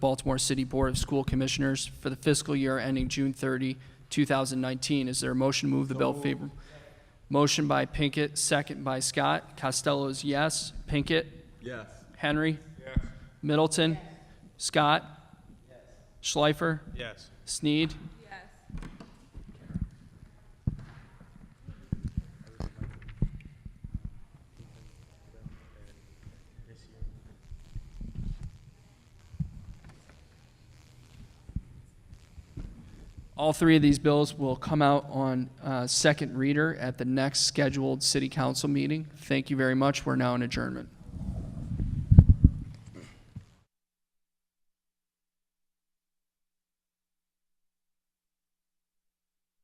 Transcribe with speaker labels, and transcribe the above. Speaker 1: Baltimore City Board of School Commissioners for the fiscal year ending June 30, 2019. Is there a motion to move the bill favorably? Motion by Pinkett, second by Scott. Costello is yes. Pinkett?
Speaker 2: Yes.
Speaker 1: Henry? Middleton? Scott? Schleifer?
Speaker 2: Yes.
Speaker 1: Sneed? All three of these bills will come out on uh, second reader at the next scheduled city council meeting. Thank you very much. We're now in adjournment.